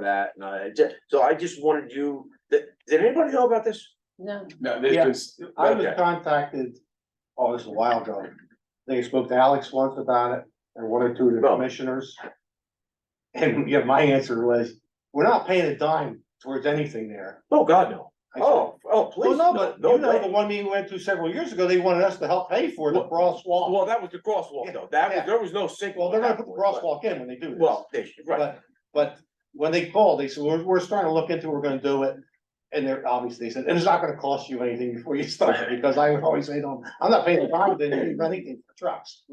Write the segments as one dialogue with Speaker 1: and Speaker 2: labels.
Speaker 1: that, and I, ju- so I just wanted you, did, did anybody know about this?
Speaker 2: No,
Speaker 3: No, this
Speaker 4: Yeah.
Speaker 3: was,
Speaker 4: I was
Speaker 3: okay.
Speaker 4: contacted, oh, this is a while ago. They spoke to Alex once about it and one or two of the
Speaker 1: No.
Speaker 4: commissioners. And yeah, my answer was, we're not paying a dime towards anything there.
Speaker 1: Oh, God, no.
Speaker 4: I said,
Speaker 1: Oh, oh,
Speaker 4: Well,
Speaker 1: please,
Speaker 4: no,
Speaker 1: no,
Speaker 4: but
Speaker 1: no
Speaker 4: you know, the
Speaker 1: way.
Speaker 4: one meeting we went to several years ago, they wanted us to help pay for the
Speaker 1: Well-
Speaker 4: crosswalk.
Speaker 1: Well, that was the crosswalk though. That was,
Speaker 4: Yeah.
Speaker 1: there was no signal.
Speaker 4: Well, they're gonna
Speaker 1: at
Speaker 4: put the
Speaker 1: that point,
Speaker 4: crosswalk in when they
Speaker 1: but-
Speaker 4: do this.
Speaker 1: Well, they should, right.
Speaker 4: But, but when they called, they said, we're, we're starting to look into, it, we're gonna do it. And they're obviously they said, and it's not gonna cost you anything before you start, because I would always say, no, I'm not paying the time, they didn't do anything for trucks.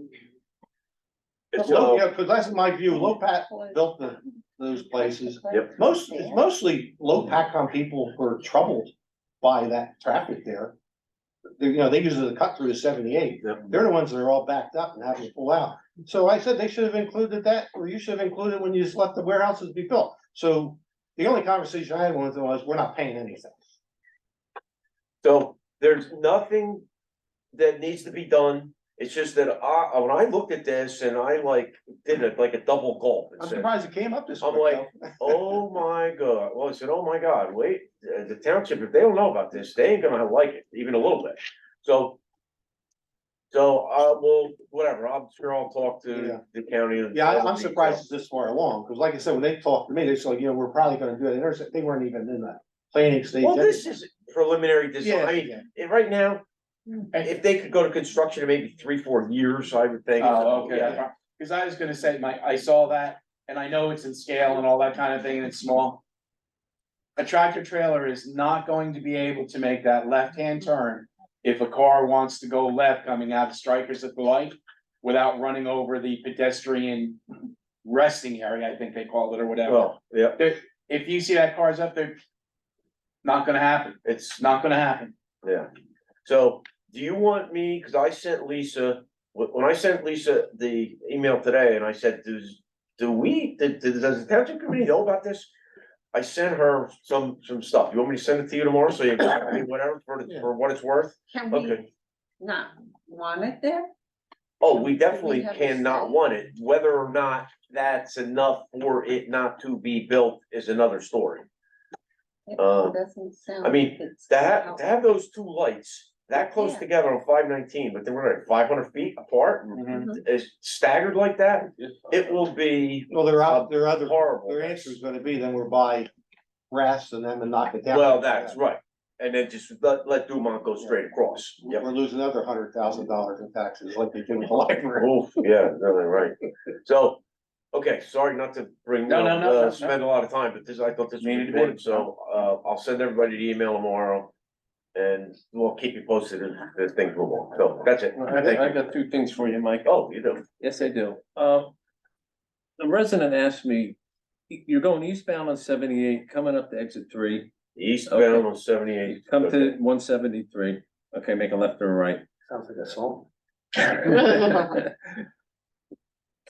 Speaker 1: So, uh,
Speaker 4: Yeah, cause that's my view, Lopat
Speaker 2: close.
Speaker 4: built the, those places,
Speaker 1: Yep.
Speaker 4: most, it's mostly Lopat on people who are troubled by that traffic there. They, you know, they use it to cut through the seventy-eight,
Speaker 1: Yep.
Speaker 4: they're the ones that are all backed up and having to pull out. So I said they should have included that, or you should have included when you just let the warehouses be built. So the only conversation I had with them was, we're not paying anything.
Speaker 1: so there's nothing that needs to be done. It's just that I, when I looked at this and I like, did it like a double gulp. and
Speaker 4: I'm
Speaker 1: said,
Speaker 4: surprised it came up this
Speaker 1: I'm
Speaker 4: quick though.
Speaker 1: like- Oh my god, well, I said, oh my god, wait, uh, the township, if they don't know about this, they ain't gonna like it, even a little bit, so. So, uh, well, whatever, I'm sure I'll talk
Speaker 4: Yeah.
Speaker 1: to the county. and-
Speaker 4: Yeah, I- I'm surprised it's this far along, because like I said, when they talked to me, they said, you know, we're probably gonna do it, They're- they weren't even in the planning stage.
Speaker 1: Well, this is preliminary design,
Speaker 4: Yeah,
Speaker 1: I mean,
Speaker 4: yeah.
Speaker 1: eh, right now, if they could go to construction in maybe three, four years, I would think.
Speaker 3: Oh, okay,
Speaker 1: Yeah.
Speaker 3: cause I was gonna say, my, I saw that, and I know it's in scale and all that kind of thing, and it's small. A tractor trailer is not going to be able to make that left-hand turn if a car wants to go left coming out of Strikers at the light. Without running over the pedestrian resting area, I think they call it or whatever,
Speaker 1: Well, yeah,
Speaker 3: if you see that car's up there. Not gonna happen,
Speaker 1: it's,
Speaker 3: not gonna happen,
Speaker 1: yeah, so, do you want me, cause I sent Lisa, wh- when I sent Lisa the email today and I said, does. Do we, did- did- does the township committee know about this? I sent her some, some stuff, you want me to send it to you tomorrow, so you can do whatever for, the- for what it's worth?
Speaker 2: Can
Speaker 1: Okay.
Speaker 2: we not want it there?
Speaker 1: Oh, we definitely
Speaker 2: We have a
Speaker 1: cannot
Speaker 2: say.
Speaker 1: want it, whether or not that's enough for it not to be built is another story.
Speaker 2: It
Speaker 1: Uh,
Speaker 2: doesn't sound.
Speaker 1: I mean,
Speaker 2: like it's
Speaker 1: To have, to
Speaker 2: out.
Speaker 1: have those two lights that close
Speaker 2: Yeah.
Speaker 1: together on five nineteen, but they were like five hundred feet apart, and
Speaker 2: Mm-hmm.
Speaker 3: Mhm.
Speaker 1: is staggered like that, it will be
Speaker 4: Well, their, out- their other,
Speaker 1: horrible.
Speaker 4: their answer is gonna be, then we're by grass and then and knock it down.
Speaker 1: Well, that's right, and then just let, let Dumont go straight across, yep.
Speaker 4: We're losing another hundred thousand dollars in taxes like they do with the library.
Speaker 1: Oof, yeah, really right. So, okay, sorry not to bring,
Speaker 3: No, no, no, no,
Speaker 1: uh,
Speaker 3: no.
Speaker 1: spend a lot of time, but this, I thought this was
Speaker 3: Needed to be.
Speaker 1: important, so, uh, I'll send everybody the email tomorrow. And we'll keep you posted as, as things move on, so that's it,
Speaker 5: I
Speaker 1: thank
Speaker 5: got, I
Speaker 1: you.
Speaker 5: got two things for you, Mike.
Speaker 1: Oh, you do,
Speaker 5: Yes, I do. Uh, the resident asked me, "Y- you're going eastbound on seventy-eight, coming up to exit three,
Speaker 1: eastbound on seventy-eight.
Speaker 5: you come to one seventy-three, okay, make a left or a right.
Speaker 4: Sounds like a song.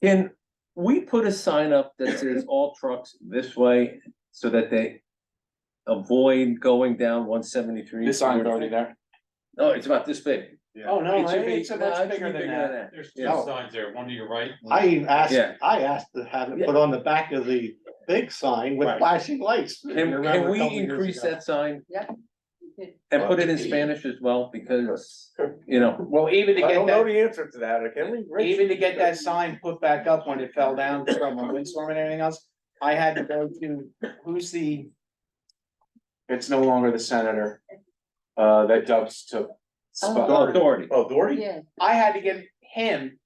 Speaker 5: Can we put a sign up that says all trucks this way so that they avoid going down one seventy-three?
Speaker 3: this sign's already there.
Speaker 5: No, it's about this big.
Speaker 3: Oh, no,
Speaker 5: It should be-
Speaker 3: it's
Speaker 5: no, it
Speaker 3: much
Speaker 5: should
Speaker 3: bigger
Speaker 5: be
Speaker 3: than that.
Speaker 6: There's two
Speaker 5: Yeah.
Speaker 6: signs there, one to your right.
Speaker 4: I even asked,
Speaker 5: Yeah.
Speaker 4: I asked to have it put on the back of the big sign with
Speaker 3: Right.
Speaker 4: flashing lights. You
Speaker 5: Can,
Speaker 4: remember
Speaker 5: can
Speaker 4: a
Speaker 5: we
Speaker 4: couple years
Speaker 5: increase
Speaker 4: ago.
Speaker 5: that sign
Speaker 2: You could-
Speaker 5: and put it in Spanish as well, because, you know,
Speaker 3: Well, even to
Speaker 1: I
Speaker 3: get
Speaker 1: don't know
Speaker 3: that,
Speaker 1: the answer to that, can we? Rich?
Speaker 3: even to get that sign put back up when it fell down from a windstorm and everything else, I had to go to, who's the? It's no longer the senator, uh, that Dubs took.
Speaker 2: Oh.
Speaker 3: spot.
Speaker 5: authority.
Speaker 1: Oh, Doherty?
Speaker 2: Yeah,
Speaker 3: I had to get him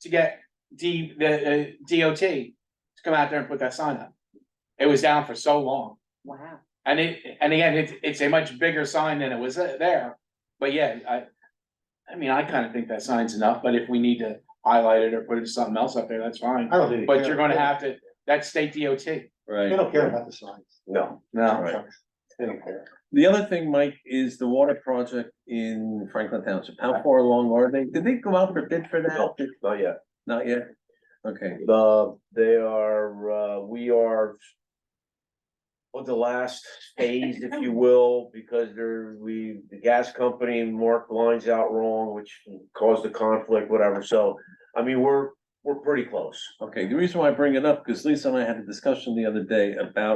Speaker 3: to get D, the, uh, DOT to come out there and put that sign up. It was down for so long,
Speaker 2: wow.
Speaker 3: and it, and again, it's, it's a much bigger sign than it was there, but yeah, I. I mean, I kinda think that sign's enough, but if we need to highlight it or put it something else up there, that's fine.
Speaker 4: I don't think. they
Speaker 3: But
Speaker 4: care.
Speaker 3: you're gonna have to, that's state DOT.
Speaker 5: Right.
Speaker 4: They don't care about the signs.
Speaker 1: No,
Speaker 3: No.
Speaker 5: Right.
Speaker 4: They don't care.
Speaker 5: The other thing, Mike, is the water project in Franklin Township. How far along are they? Did they go out for bid for
Speaker 1: No.
Speaker 5: that?
Speaker 1: not yet,
Speaker 5: Not yet? Okay,
Speaker 1: the, they are, uh, we are. On the last phase, if you will, because there, we, the gas company marked lines out wrong, which caused the conflict, whatever, so. I mean, we're, we're pretty close.
Speaker 5: okay. The reason why I bring it up, because Lisa and I had a discussion the other day about